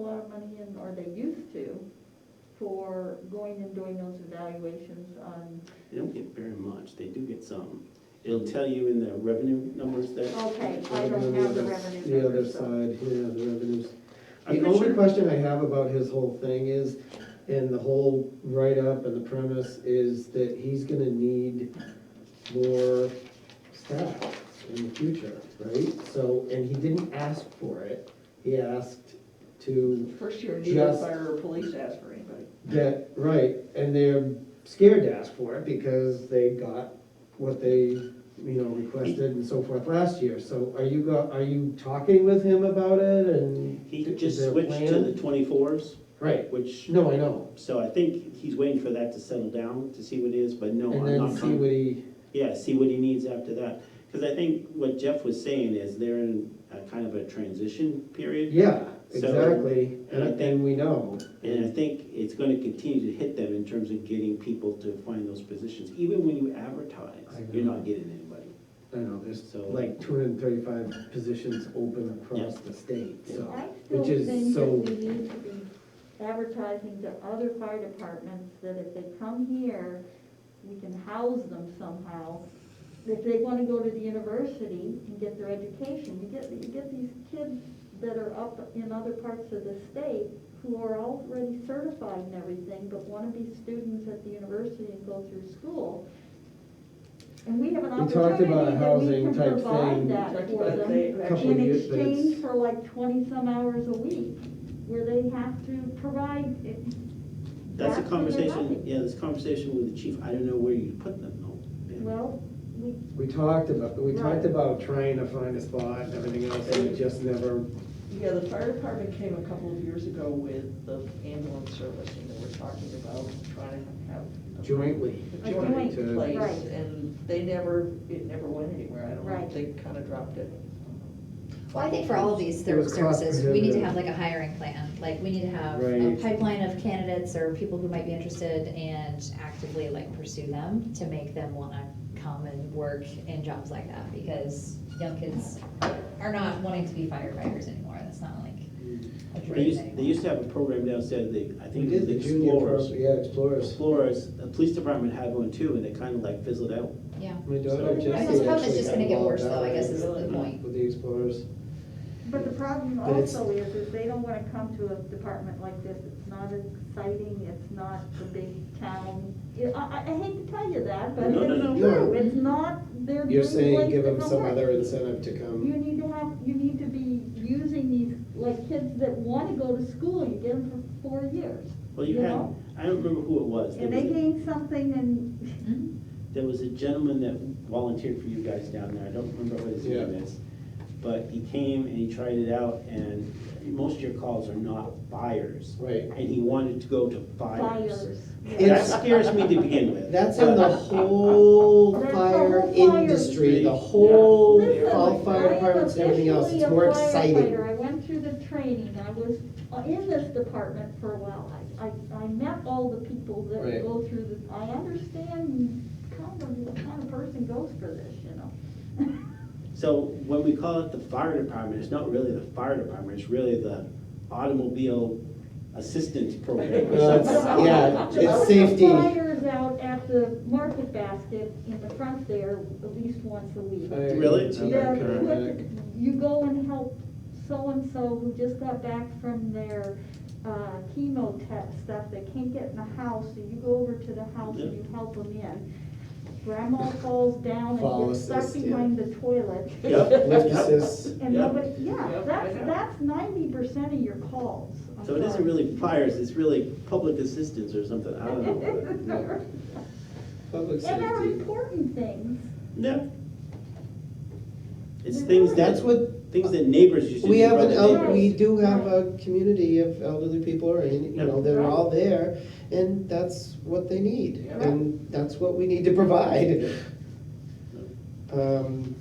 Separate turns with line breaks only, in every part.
lot of money in, or they used to, for going and doing those evaluations on,
They don't get very much, they do get some. It'll tell you in the revenue numbers that,
okay, I don't have the revenue
The other
numbers, so.
side, yeah, the revenues.
I'm
The
not
only
sure.
question I have about his whole thing is, and the whole write-up and the premise is that he's gonna need more staff in the future, right? So, and he didn't ask for it, he asked to
First year, neither
Just-
fire or police asked for anybody.
That, right, and they're scared to ask for it because they got what they, you know, requested and so forth last year. So are you go, are you talking with him about it and?
he
is
just
there a
switched to
plan?
the twenty-fours,
Right,
which,
no, I know,
so I think he's waiting for that to settle down to see what it is, but no,
and
I'm
then
not
see what
coming.
he,
Yeah, see what he needs after that. Because I think what Jeff was saying is they're in a kind of a transition period.
yeah,
So-
exactly,
and I
and then we know.
And I think it's gonna continue to hit them in terms of getting people to find those positions. Even when you advertise,
I
you're
know.
not getting anybody.
I know, there's
So-
like two hundred and thirty-five positions open across
Yeah.
the state, so,
I still
which
think
is
that
so,
we need to be advertising to other fire departments that if they come here, we can house them somehow. If they wanna go to the university and get their education, you get, you get these kids that are up in other parts of the state who are already certified and everything, but wanna be students at the university and go through school. And we have an
We talked
opportunity
about a
that we
housing
can
type
provide
thing.
that
Talked
for
about
them
they
in
Couple of years, but
exchange
it's-
for like twenty-some hours a week, where they have to provide it.
That's
back to
a
their
conversation,
housing.
yeah, this conversation with the chief, I don't know where you put them though. Yeah.
Well, we,
we talked about, we
Right.
talked about trying to find a spot and everything else, and it just never,
Yeah, the fire department came a couple of years ago with the ambulance service, and they were talking about trying to have. a-
jointly.
A
joint,
joint
right.
place, and they never, it never went anywhere, I don't know,
Right.
they kinda dropped it.
Well, I think for all of these
It was
ser- services, we need to
cost-prohibitive.
have like a hiring plan, like, we need to have a
Right.
pipeline of candidates or people who might be interested and actively like pursue them to make them wanna come and work in jobs like that, because young kids are not wanting to be firefighters anymore, that's not like a
They
dream
used, they
anymore.
used to have a program downstairs, they, I
We
think it
did
was
the junior, pro-
Explorers.
yeah, Explorers.
Explorers, the police department had one too, and it kind of like fizzled out.
Yeah.
My
So-
daughter
I
Jessie.
think
This problem is
actually
just gonna
got
get
involved
worse though, I
out
guess is
with-
the point.
With the Explorers.
but the problem
But it's-
also is, is they don't wanna come to a department like this, it's not exciting, it's not the big town. Yeah, I, I- I hate to tell you that, but
No, no,
it's
no.
true, it's not their dream
You're
place
saying give
to
them
come
some
work.
other um, incentive to
You
come.
need to have, you need to be using these, like, kids that wanna go to school, you get them for four years.
Well, you
You
had,
know?
I don't remember who it was. There
And they
was a-
gain something and
Hmm?
Mhm.
There was a gentleman that volunteered for you guys down there, I don't remember what his name
Yeah.
is. But he came and he tried it out, and most of your calls are not fires.
Right.
And he wanted to go to fires.
fires.
That
It's-
scares me to begin with.
That's in the whole
That's the
fire
whole fire
industry,
industry.
the whole,
Listen,
all
I
fire
am
departments and everything else, it's more
officially a
exciting.
firefighter. I went through the training, I was uh, in this department for a while, I, I, I met all the people that
Right.
go through this, I understand kind of what kind of person goes for this, you know?
So when we call it the fire department, it's not really the fire department, it's really the automobile assistance program or
Well, it's-
something.
yeah,
There
it's
was a
safety.
flyers out at the market basket in the front there at least once a week.
Fire,
Really?
it's
Yeah,
Yeah,
another
quick,
paramedic.
you go and help so-and-so who just got back from their uh, chemo tech stuff, they can't get in the house, so you go over to the house and you help them in. Grandma falls down and
Fall
gets stuck
assist, yeah.
behind the toilet.
Yep.
Lift assists.
And
Yeah.
nobody, yeah,
Yeah, I
that's,
know.
that's ninety percent of your calls. I'm
So it isn't
sorry.
really fires, it's really public assistance or something, I don't know.
Public
And they're
safety.
important things.
No. It's things
That's
that,
what,
things that neighbors used to do.
we have an,
rather
el-
than-
we do have a community of elderly people, or, any- you know, they're all there, and that's what they need.
Yeah.
And that's what we need to provide. Um,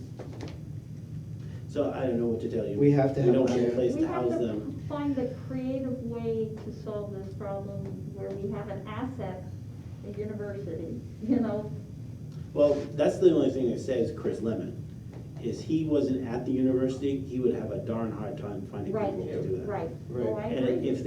So I don't know what to tell you.
We have to have
We don't
them
have a
here.
place
We
to
have
house
to
them.
find a creative way to solve this problem where we have an asset, a university, you know?
Well, that's the only thing I say is Chris Lemon. is he wasn't at the university, he would have a darn hard time finding
Right.
people to do that.
Right,
Right.
oh, I
And
agree.
if